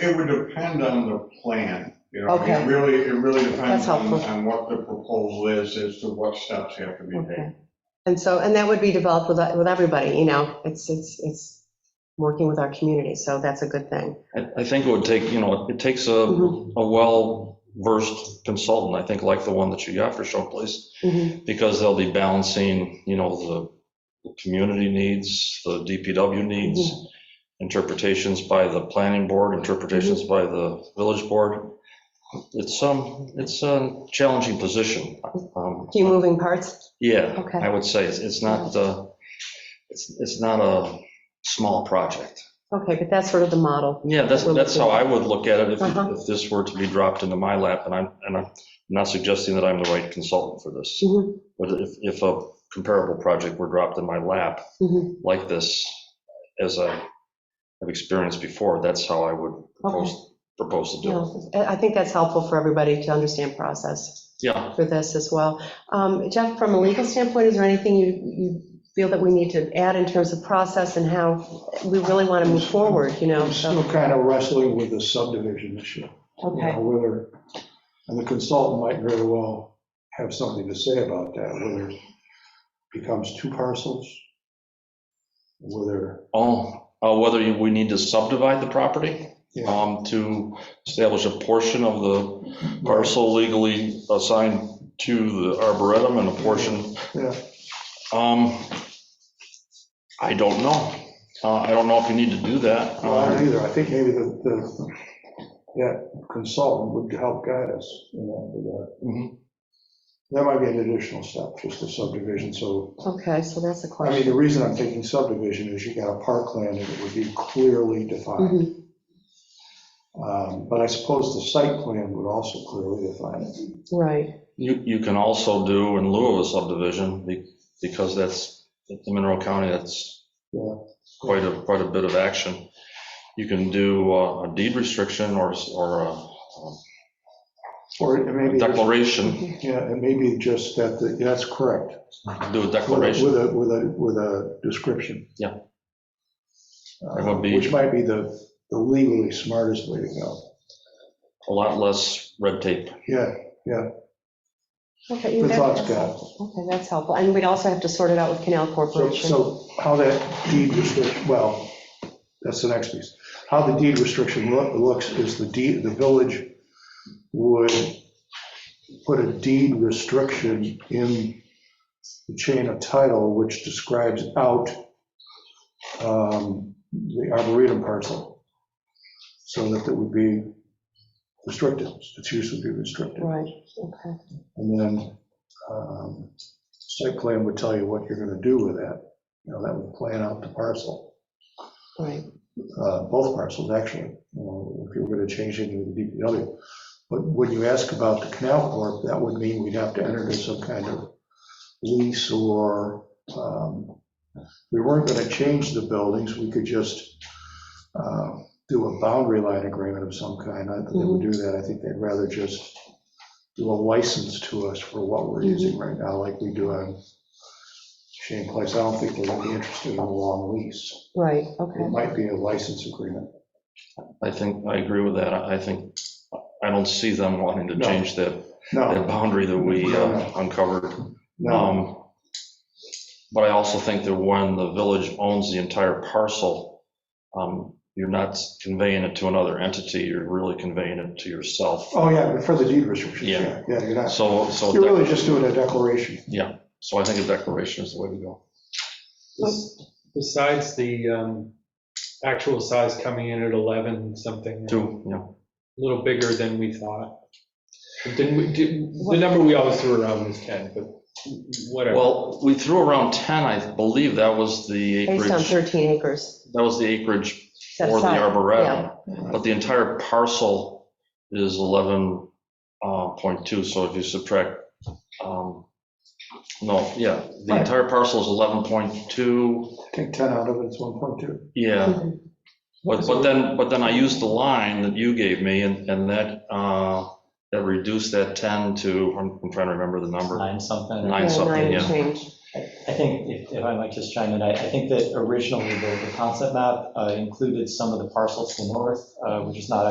It would depend on the plan, you know, I mean, Okay. it really, it really depends That's on helpful. on what the proposal is, as to what steps have to be Okay. taken. And so, and that would be developed with, with everybody, you know, it's, it's, it's working with our community, so that's a good thing. I I think it would take, you know, it takes a, Mhm. a well-versed consultant, I think, like the one that you got for Showplace, Mhm, because they'll be balancing, you know, the, the community needs, the DPW needs, interpretations by the planning board, interpretations by the village board. It's, um, it's a challenging position. um, Few moving parts, Yeah, Okay. I would say, it's, it's not, uh, it's, it's not a small project. okay, but that's sort of the model. Yeah, that's, We're that's how looking I at. would look at it if, Uh-huh. if this were to be dropped into my lap, and I'm, and I'm not suggesting that I'm the right consultant for this. Mhm, But if, if a comparable project were dropped in my lap mhm. like this, as I have experienced before, that's how I would propose, propose to do it. No, I I think that's helpful for everybody to understand process Yeah, for this as well. Um, Jeff, from a legal standpoint, is there anything you, you feel that we need to add in terms of process and how we really want to move forward, you know? I'm still so- kind of wrestling with the subdivision issue. you Okay, know, Whether, and the consultant might very well have something to say about that, whether it becomes two parcels, whether, oh, uh, whether you- we need to subdivide the property yeah, um, to establish a portion of the parcel legally assigned to the arboretum and a portion yeah, Um, I don't know. Uh, I don't know if you need to do that. well, I Um, don't either, I think maybe the, the, that consultant would help guide us, you know, with that. mhm. That might be an additional step, just a subdivision, so okay, so that's a I mean, the question. reason I'm thinking subdivision is you got a parkland and it would be clearly defined. Mhm, Um, But I suppose the site plan would also clearly define it. Right, You, you can also do in lieu of a subdivision, be- because that's, in Mineral County, that's Yeah. quite a, quite a bit of action. You can do uh, a deed restriction or, s- or a Or it may be, declaration, yeah, it may be just that, the- that's correct. do a With a, declaration. with a, with a- with a description. Yeah. Uh, That would be- Which might be the the legally smartest way to go. A lot less red tape. Yeah, okay. you good got thoughts, that. Scott. Okay, that's helpful. And we'd also have to sort it out with Canal So, Corporation. so how that deed restriction, well, that's the next piece. How the deed restriction loo- looks is the deed, the village would put a deed restriction in the chain of title, which describes out um, the arboretum parcel, so that it would be restricted, its use would be restricted. Right, okay. And then um, site plan would tell you what you're going to do with that. You know, that would plan out the parcel, Right, uh, both parcels, actually, you know, if you were going to change it into the DPW. But when you ask about the canal corp, that would mean we'd have to enter into some kind of lease or, um, we weren't going to change the buildings, we could just uh, do a boundary line agreement of some kind. I don't think they would do that, I think they'd rather just do a license to us for what we're using right now, like we do on Shane Place. I don't think they're going to be interested in a long lease. right, It okay. might be a license agreement. I think, I agree with that. I I think, I don't see them wanting to No. change that, that No, boundary that we uh, No. uncovered. no, Um, But I also think that when the village owns the entire parcel, um, you're not conveying it to another entity, you're really conveying it to yourself. oh, yeah, but for the deed restrictions, Yeah. yeah, yeah, you're not, So, so, you're really dec- just doing a declaration. so I think a declaration is the way to go. Besides the um, actual size coming in at 11 something, a Two, yeah. little bigger than we thought. But Didn't we, did- the number we always threw around was 10, but whatever. Well, we threw around 10, I believe that was the Based on acreage, 13 acres. that was the acreage set for the aside. arboretum. Yeah. But the entire parcel is 11.2, so if you subtract, um, no, yeah, the Right. entire parcel is 11.2, Take 10 out of it, it's 1.2. yeah. Mhm. But, but then, but then I used the line that you gave me, and, and that, uh, that reduced that 10 to, I'm I'm trying to remember the number, nine something. Nine. Yeah, something, nine and yeah. change. I think, if if I might just chime in, I I think that originally the the concept map uh, included some of the parcels to the north, uh, which is not